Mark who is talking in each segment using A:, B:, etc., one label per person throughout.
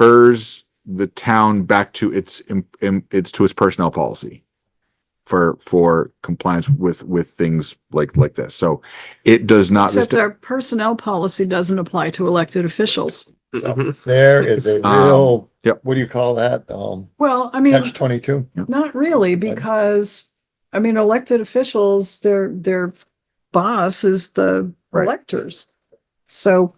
A: refers the town back to its, im- im- it's to its personnel policy for, for compliance with, with things like, like this. So it does not, this,
B: Except our personnel policy doesn't apply to elected officials.
C: Mhm.
D: There is a
A: Um,
D: real,
A: yep.
D: what do you call that? Um,
B: Well, I mean,
D: catch twenty-two.
B: not really, because, I mean, elected officials, their, their boss is the
A: Right.
B: electors. So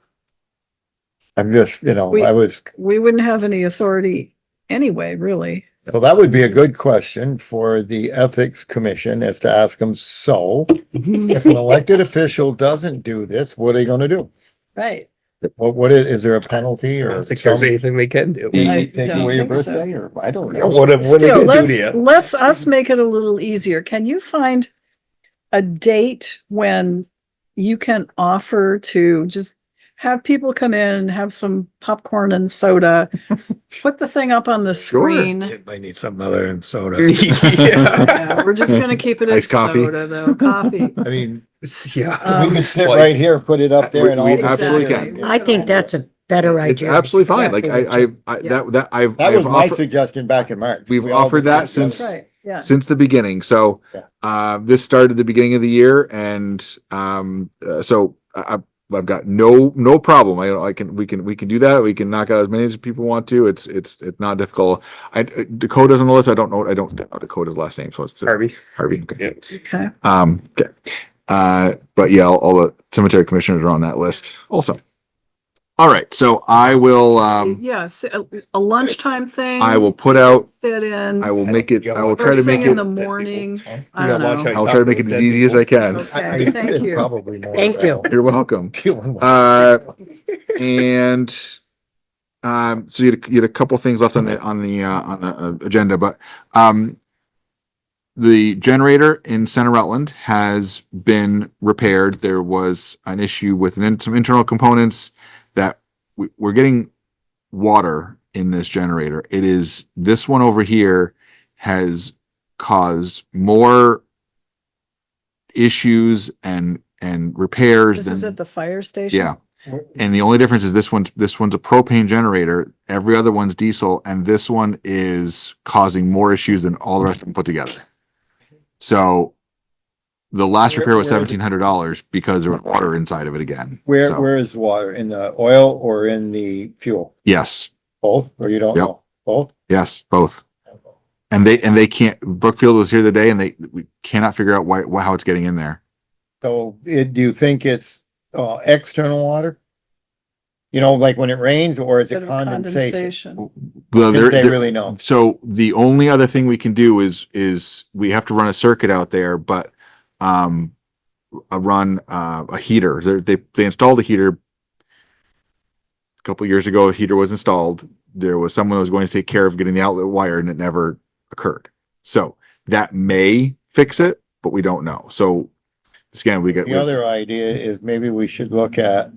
D: I'm just, you know,
B: We-
D: I was,
B: we wouldn't have any authority anyway, really.
D: so that would be a good question for the Ethics Commission is to ask them, so
B: Mm-hmm.
D: if an elected official doesn't do this, what are they gonna do?
B: Right.
D: What, what is, is there a penalty
C: I
D: or?
C: don't think there's
D: some-
C: anything they can do.
D: Take
B: I don't
D: away your
B: think so.
D: birthday or, I don't know.
C: What, what they
B: Still,
C: can do
B: let's,
C: to you.
B: let's us make it a little easier. Can you find a date when you can offer to just have people come in, have some popcorn and soda, put the thing up on the
A: Sure.
B: screen?
E: It might need something other than soda.
C: yeah.
B: Yeah, We're just gonna keep it as
A: Iced coffee.
B: soda though, coffee.
D: I mean,
C: yeah.
B: Um,
D: we
B: Um,
D: can
C: It's
D: sit
C: like-
D: right here, put it up there
A: We-
D: and all.
A: we
D: this
A: absolutely
D: here.
B: can.
F: I think that's a better
A: it's
F: idea.
A: absolutely fine. Like
F: Yeah,
A: I, I, I,
B: Yeah.
A: that, that I've.
D: That
A: I've
D: was my
A: offered-
D: suggestion back in March.
A: We've
D: We all
A: offered that
D: discussed
A: since-
B: That's right, yeah.
A: since the beginning. So,
D: Yeah.
A: uh, this started the beginning of the year and, um, uh, so I, I- I've got no, no problem. I, I can, we can, we can do that. We can knock out as many as people want to. It's, it's, it's not difficult. I, Dakota's on the list. I don't know, I don't know Dakota's last name. So it's
C: Harvey.
A: Harvey. Okay.
C: Yeah.
B: Okay,
A: Um, okay. Uh, but yeah, all, all the cemetery commissioners are on that list also. All right. So I will, um,
B: yes, a- a lunchtime thing.
A: I will put out,
B: Fit in.
A: I will make it, I will try to
B: First
A: make
B: thing in the
A: it,
B: morning.
D: Okay.
B: I don't know.
A: I'll try to make it as easy as I can.
D: I-
B: Okay, thank
D: it's
B: you.
D: Probably more.
F: Thank you.
A: You're welcome.
D: Dealing with-
A: Uh, and um, so you had, you had a couple things left on the on the uh, on the uh, agenda, but um, the generator in Center Rutland has been repaired. There was an issue with an in, some internal components that we, we're getting water in this generator. It is this one over here has caused more issues and and repairs
B: This
A: than
B: is at the fire station.
A: yeah. Uh, And the only difference is this one's, this one's a propane generator, every other one's diesel, and this one is causing more issues than all the rest of them put together. So the last
D: Where-
A: repair was
D: where is it?
A: seventeen hundred dollars because there was water inside of it again.
D: Where,
A: So,
D: where is water? In the oil or in the fuel?
A: Yes,
D: Both, or you don't
A: Yep.
D: know? Both?
A: yes, both. And they, and they can't, Brookfield was here today and they, we cannot figure out why, why, how it's getting in there.
D: So it, do you think it's, uh, external water? You know, like when it rains or is
B: Instead
D: it
B: of
D: condensation?
A: Well,
D: Didn't
A: there-
D: they
A: there-
D: really know?
A: So the only other thing we can do is, is we have to run a circuit out there, but, um, a run, uh, a heater. They, they, they installed a heater. A couple years ago, a heater was installed. There was someone that was going to take care of getting the outlet wired and it never occurred. So that may fix it, but we don't know. So again, we get.
D: The other idea is maybe we should look at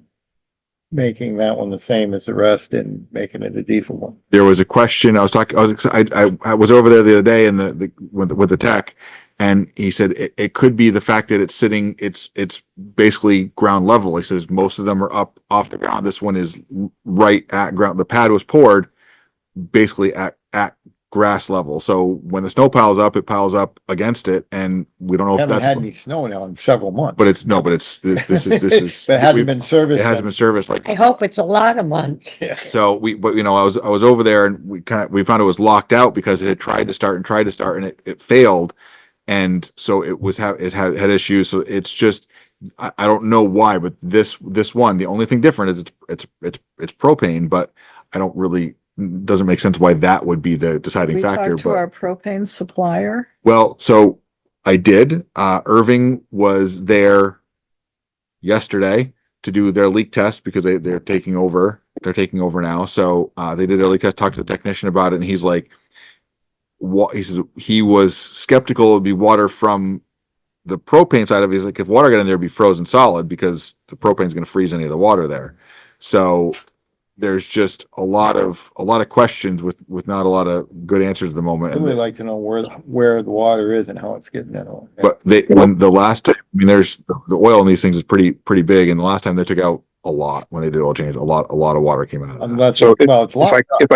D: making that one the same as the rest and making it a diesel one.
A: there was a question I was talking, I was, ex- I, I, I was over there the other day and the, the, with, with the tech. And he said, it, it could be the fact that it's sitting, it's, it's basically ground level. He says, most of them are up off the ground. This one is right at ground. The pad was poured basically at, at grass level. So when the snow piles up, it piles up against it and we don't know if
D: Haven't had any
A: that's,
D: snow now in um, several months.
A: but it's, no, but it's, this, this is, this is.
D: But it hasn't
A: we-
D: been serviced.
A: It hasn't been
D: since-
A: serviced like
F: I hope it's a lot of months.
A: so we, but you know, I was, I was over there and we kind of, we found it was locked out because it had tried to start and tried to start and it, it failed. And so it was, ha- it had, had issues. So it's just, I, I don't know why, but this, this one, the only thing different is it's, it's, it's, it's propane, but I don't really, doesn't make sense why that would be the deciding
B: We
A: factor.
B: talked to
A: But
B: our propane supplier.
A: well, so I did. Uh, Irving was there yesterday to do their leak test because they, they're taking over. They're taking over now. So uh, they did their leak test, talked to the technician about it, and he's like, what he says he was skeptical it would be water from the propane side of it. He's like, if water got in there, it'd be frozen solid because the propane's gonna freeze any of the water there. So there's just a lot of a lot of questions with with not a lot of good answers at the moment.
D: I'd
A: And
D: really like to know where, where the water is and how it's getting in.
A: but they, when the last, time, I mean, there's the oil in these things is pretty, pretty big. And the last time they took out
G: a lot when they did oil change. A lot, a lot of water came out of that.
A: unless,
D: So if-
A: well, it's
D: If I,
A: locked up.
D: if I